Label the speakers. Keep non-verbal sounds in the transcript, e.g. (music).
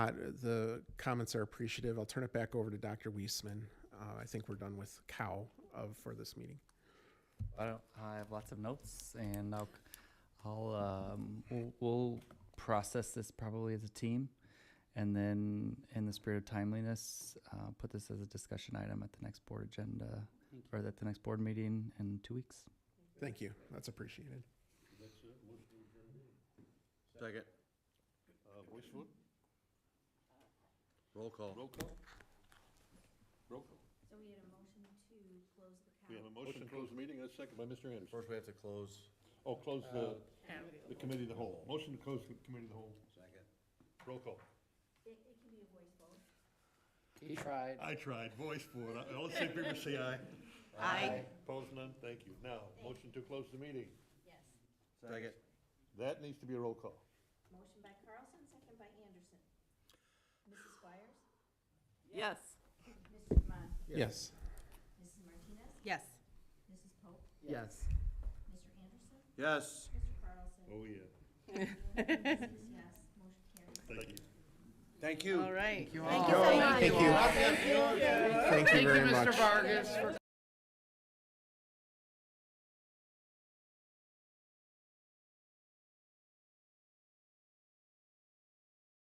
Speaker 1: Uh, The comments are appreciative. I'll turn it back over to Dr. Weisman. Uh, I think we're done with cow of, for this meeting.
Speaker 2: I don't, I have lots of notes and I'll, I'll, um, we'll, we'll process this probably as a team. And then in the spirit of timeliness, uh, put this as a discussion item at the next board agenda or at the next board meeting in two weeks.
Speaker 1: Thank you. That's appreciated.
Speaker 3: Second. Roll call.
Speaker 4: Roll call? Roll call.
Speaker 5: So we had a motion to close the cow.
Speaker 4: We have a motion to close the meeting, that's second by Mr. Anderson.
Speaker 3: First, we have to close.
Speaker 4: Oh, close the, the committee of the whole. Motion to close the committee of the whole.
Speaker 3: Second.
Speaker 4: Roll call.
Speaker 5: It, it can be a voice vote.
Speaker 6: He tried.
Speaker 4: I tried, voice for it. I- All the same people say aye. Aye. Opposed, none, thank you. Now, motion to close the meeting.
Speaker 5: Yes.
Speaker 3: Second.
Speaker 4: That needs to be a roll call.
Speaker 5: Motion by Carlson, second by Anderson. Mrs. Squires?
Speaker 7: Yes.
Speaker 5: Mr. Demond?
Speaker 1: Yes.
Speaker 5: Mrs. Martinez?
Speaker 7: Yes.
Speaker 5: Mrs. Pope?
Speaker 6: Yes.
Speaker 5: Mr. Anderson?
Speaker 3: Yes.
Speaker 5: Mr. Carlson?
Speaker 4: Oh,
Speaker 5: (laughs)
Speaker 4: yeah.
Speaker 5: Six yes, motion carries.
Speaker 4: Thank you.
Speaker 3: Thank you.
Speaker 7: All right.
Speaker 1: Thank you. Thank you very much.
Speaker 7: Vargas, for